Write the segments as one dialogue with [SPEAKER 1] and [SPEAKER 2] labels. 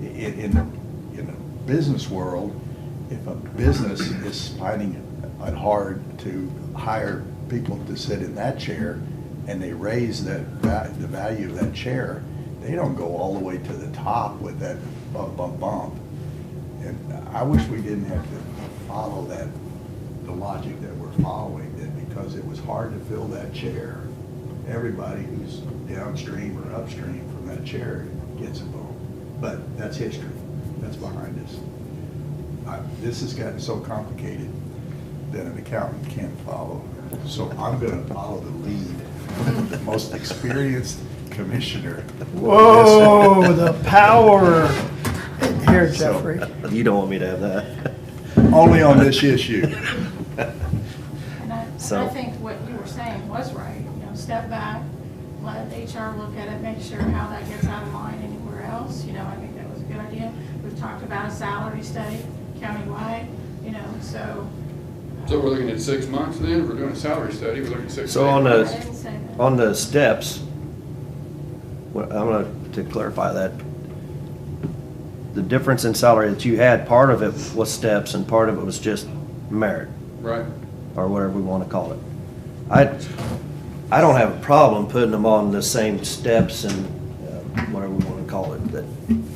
[SPEAKER 1] in, in the, in the business world, if a business is finding it hard to hire people to sit in that chair, and they raise that, va- the value of that chair, they don't go all the way to the top with that bump, bump, bump. And I wish we didn't have to follow that, the logic that we're following, that because it was hard to fill that chair, everybody who's downstream or upstream from that chair gets a bump. But that's history, that's behind us. I- This has gotten so complicated that an accountant can't follow. So I'm gonna follow the lead, of the most experienced commissioner.
[SPEAKER 2] Whoa, the power. Here, Jeffrey.
[SPEAKER 3] You don't want me to have that.
[SPEAKER 1] Only on this issue.
[SPEAKER 4] And I, and
[SPEAKER 3] So-
[SPEAKER 4] I think what you were saying was right, you know, step back, let HR look at it, make sure how that gets out of line anywhere else, you know, I think that was a good idea. We've talked about a salary study countywide, you know, so. uh,
[SPEAKER 5] So we're looking at six months then, if we're doing a salary study, we're looking at six.
[SPEAKER 3] So on
[SPEAKER 4] I
[SPEAKER 5] months.
[SPEAKER 3] the-
[SPEAKER 4] didn't say that.
[SPEAKER 3] On the steps, well, I'm gonna, to clarify that, the difference in salary that you had, part of it was steps and part of it was just merit,
[SPEAKER 5] Right,
[SPEAKER 3] or whatever we wanna call it. I, I don't have a problem putting them on the same steps and uh, whatever we wanna call it, but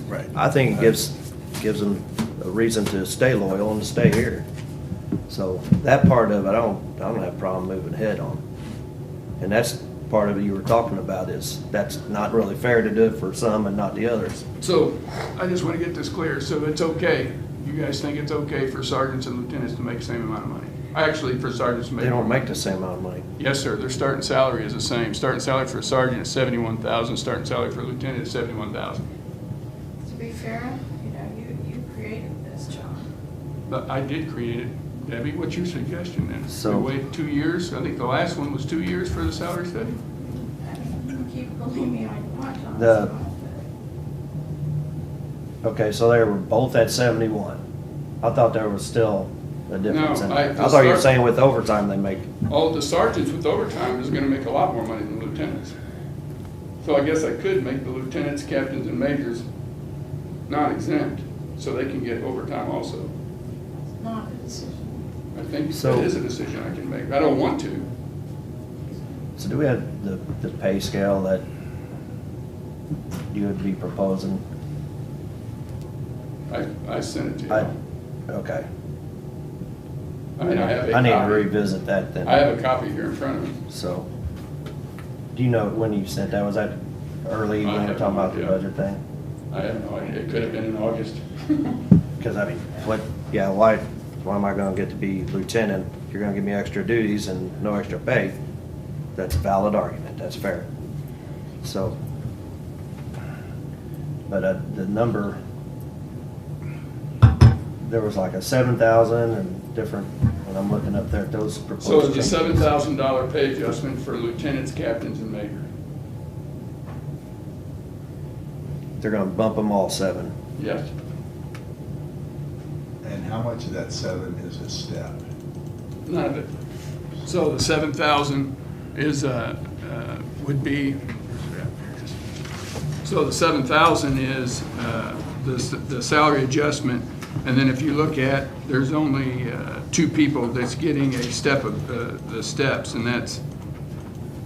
[SPEAKER 1] Right.
[SPEAKER 3] I think it gives, gives them a reason to stay loyal and to stay here. So that part of it, I don't, I don't have a problem moving ahead on. And that's part of it you were talking about is, that's not really fair to do it for some and not the others.
[SPEAKER 5] so I just want to get this clear, so it's okay, you guys think it's okay for sergeants and lieutenants to make the same amount of money? Actually, for sergeants to make.
[SPEAKER 3] They don't make the same amount of money.
[SPEAKER 5] Yes, sir, their starting salary is the same, starting salary for a sergeant is seventy-one thousand, starting salary for a lieutenant is seventy-one thousand.
[SPEAKER 4] To be fair, you know, you, you created this job.
[SPEAKER 5] But I did create it, Debbie, what's your suggestion then?
[SPEAKER 3] So-
[SPEAKER 5] We wait two years, I think the last one was two years for the salary study?
[SPEAKER 4] I mean, you keep, believe me, I watch on
[SPEAKER 3] The-
[SPEAKER 4] this.
[SPEAKER 3] Okay, so they were both at seventy-one. I thought there was still a difference in
[SPEAKER 5] No, I-
[SPEAKER 3] that. I thought you were
[SPEAKER 5] the start-
[SPEAKER 3] saying with overtime they make,
[SPEAKER 5] Oh, the sergeants with overtime is gonna make a lot more money than lieutenants. So I guess I could make the lieutenants, captains, and majors non-exempt, so they can get overtime also.
[SPEAKER 4] It's not a decision.
[SPEAKER 5] I think
[SPEAKER 3] So-
[SPEAKER 5] that is a decision I can make, I don't want to.
[SPEAKER 3] so do we have the, the pay scale that you would be proposing?
[SPEAKER 5] I, I sent it to
[SPEAKER 3] I,
[SPEAKER 5] you.
[SPEAKER 3] okay.
[SPEAKER 5] I mean, I have a
[SPEAKER 3] I need to
[SPEAKER 5] copy.
[SPEAKER 3] revisit that then.
[SPEAKER 5] I have a copy here in front of me.
[SPEAKER 3] So, do you know when you sent that? Was that early
[SPEAKER 5] I
[SPEAKER 3] when we were
[SPEAKER 5] have
[SPEAKER 3] talking
[SPEAKER 5] no
[SPEAKER 3] about the
[SPEAKER 5] idea.
[SPEAKER 3] budget thing?
[SPEAKER 5] I have no idea, it could have been in August.
[SPEAKER 3] Because I mean, what, yeah, why, why am I gonna get to be lieutenant? You're gonna give me extra duties and no extra pay. That's a valid argument, that's fair. So, but uh, the number, there was like a seven thousand and different, when I'm looking up there at those proposed
[SPEAKER 5] So it's a
[SPEAKER 3] changes.
[SPEAKER 5] seven thousand dollar pay adjustment for lieutenants, captains, and majors.
[SPEAKER 3] They're gonna bump them all seven.
[SPEAKER 5] Yes,
[SPEAKER 1] And how much of that seven is a step?
[SPEAKER 5] none of it. So the seven thousand is, uh, uh, would be, so the seven thousand is, uh, the, s- the salary adjustment. And then if you look at, there's only, uh, two people that's getting a step of, uh, the steps, and that's,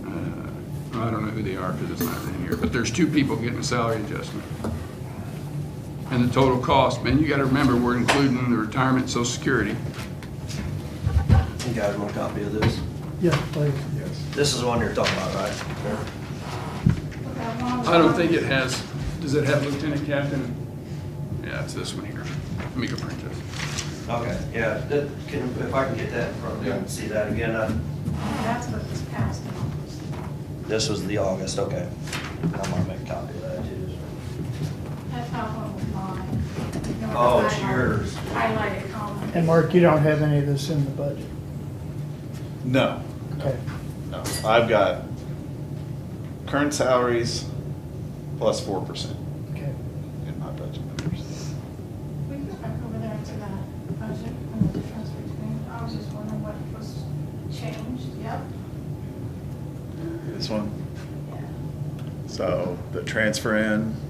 [SPEAKER 5] uh, I don't know who they are because it's not in here, but there's two people getting a salary adjustment. And the total cost, man, you gotta remember, we're including the retirement, social security.
[SPEAKER 3] You guys want a copy of this?
[SPEAKER 2] Yeah, please.
[SPEAKER 1] Yes.
[SPEAKER 3] This is the one you're talking about, right?
[SPEAKER 4] But that long-
[SPEAKER 5] I don't think it has, does it have lieutenant captain? Yeah, it's this one here. Let me go print this.
[SPEAKER 3] Okay, yeah, that, can, if I can get that in front of you and see that again, uh, I.
[SPEAKER 4] That's what was passed in August.
[SPEAKER 3] This was the August, okay. I'm gonna make a copy of that too.
[SPEAKER 4] That's not what was mine. You know,
[SPEAKER 3] Oh,
[SPEAKER 4] I
[SPEAKER 3] it's
[SPEAKER 4] highlighted-
[SPEAKER 3] yours.
[SPEAKER 4] Highlighted column.
[SPEAKER 2] And Mark, you don't have any of this in the budget.
[SPEAKER 6] No,
[SPEAKER 2] Okay.
[SPEAKER 6] no. I've got current salaries plus four percent
[SPEAKER 2] Okay.
[SPEAKER 6] in my budget numbers.
[SPEAKER 4] We can go back over there to that budget and the difference between, I was just wondering what was changed, yep.
[SPEAKER 6] This one,
[SPEAKER 4] Yeah. Uh-huh.
[SPEAKER 6] so the transfer in